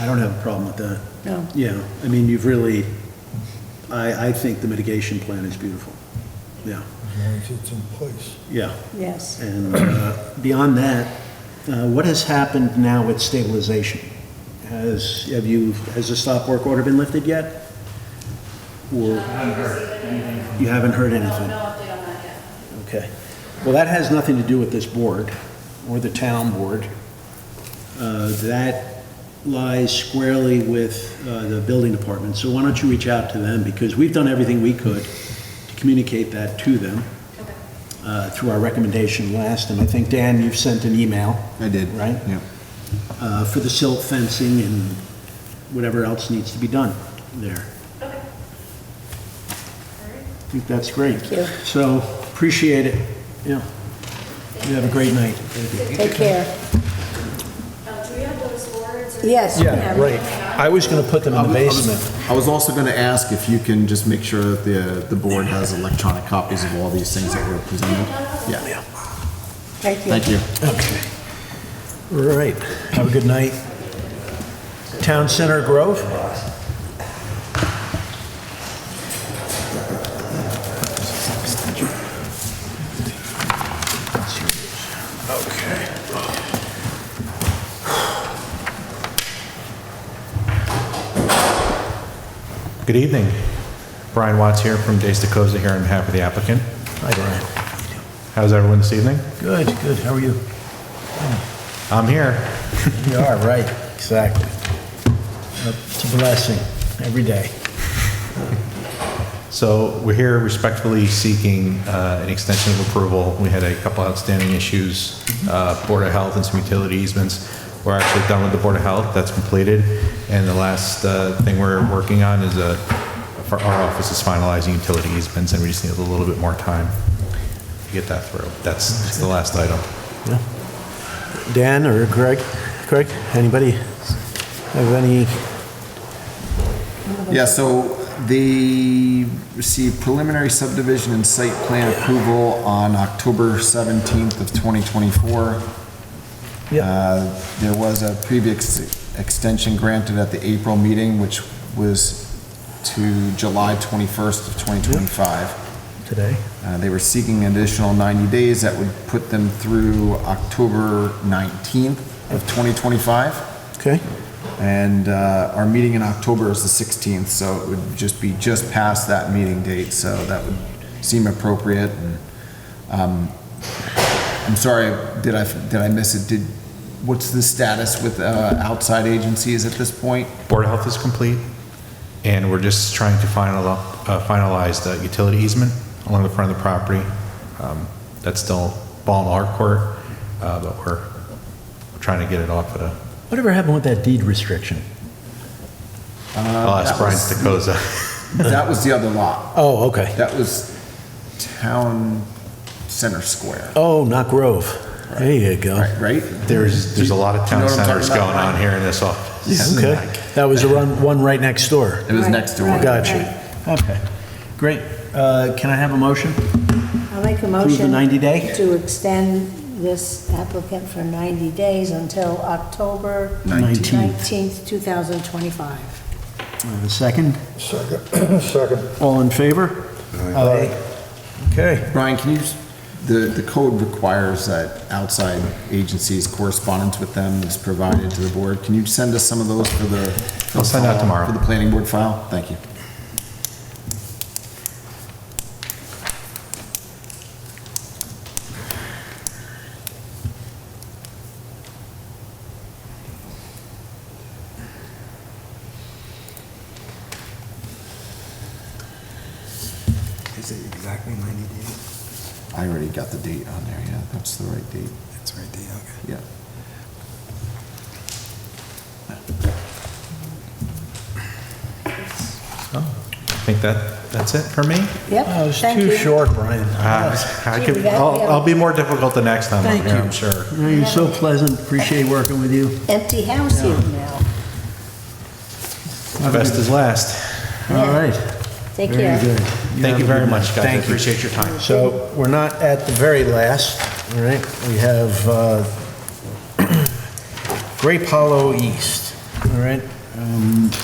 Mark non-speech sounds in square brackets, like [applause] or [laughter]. I don't have a problem with that. No. Yeah, I mean, you've really, I, I think the mitigation plan is beautiful. Yeah, as long as it's in place. yeah. Yes. And uh, beyond that, uh, what has happened now with stabilization? Has, have you, has the stop work order been lifted yet? Or? You haven't heard anything? No update on that yet. Okay. Well, that has nothing to do with this board or the town board. Uh, That lies squarely with uh, the building department. So why don't you reach out to them? Because we've done everything we could to communicate that to them uh, through our recommendation last. And I think, Dan, you've sent an email. I did. Right? Yeah. uh, for the silt fencing and whatever else needs to be done there. I think that's great. Thank you. So, appreciate it, yeah. You have a great night. Take care. Um, do we have those boards? or- Yes. we have- I was gonna put them in the basement. I was also going to ask if you can just make sure that the, the board has electronic copies of all these things that were presented. Yeah, Thank you. thank you. Okay. All right, have a good night. Town Center Grove? Good evening. Brian Watts here from Days to Coza here on behalf of the applicant. Hi, Brian. How's everyone this evening? Good, good, how are you? I'm here. You are, right, exactly. It's a blessing, every day. So we're here respectfully seeking uh, an extension of approval. We had a couple outstanding issues, uh, Board of Health and some utility easements. We're actually done with the Board of Health, that's completed. And the last uh, thing we're working on is uh, for our office is finalizing utility easements, and we just need a little bit more time to get that through. That's that's the last item. Dan or Greg? Greg, anybody have any? Yeah, so they received preliminary subdivision and site plan approval on October 17th of 2024. Uh, There was a previous extension granted at the April meeting, which was to July 21st of 2025. Today? Uh, They were seeking an additional 90 days that would put them through October 19th of 2025. Okay, And uh, our meeting in October is the 16th, so it would just be just past that meeting date, so that would seem appropriate. And um, I'm sorry, did I, did I miss it? Did, what's the status with uh, outside agencies at this point? Board of Health is complete, and we're just trying to final- uh, finalize the utility easement along the front of the property. Um, That's still ball in our court, uh, but we're trying to get it off Uh, at a, Whatever happened with that deed restriction? I'll ask that Brian was- Stokoza. [laughs] That was the other lot. oh, okay. That was Town Center Square, Oh, not Grove. There you Oh. go. right? right? There's, there's a lot of Do you know town what I'm centers talking going about, on right? here in this office. Okay, that was the run- one right next door. It was next door. Right, Gotcha. right. Okay, great. Uh, Can I have a motion? I'll make a Approve the motion. 90-day? To extend this applicant for 90 days until October 19th. 19th, 2025. I have a second. Second, [clears throat] second. All in favor? Aye. Okay. Brian, can you, s- the, the code requires that outside agencies, correspondence with them is provided to the board. Can you send us some of those for the? for the I'll send out file- tomorrow. For the planning board file? Thank you. Is it exactly 90 days? I already got the date on there, yeah, that's the right date, That's right, there, okay. yeah. I think that, that's it for me. Yep, Uh, That was thank too you. short, Brian. Uh, I Gee, could, that- I'll, I'll be more difficult the next time I'm Thank here, you. I'm sure. No, You're so pleasant, appreciate working with you. Empty house here now. Best is last. All right. Take Very care. good. Thank you very much, guys. I Thank you. appreciate your time. So we're not at the very last, all [clears throat] right? Um, We have uh, Grape Hollow East. All right.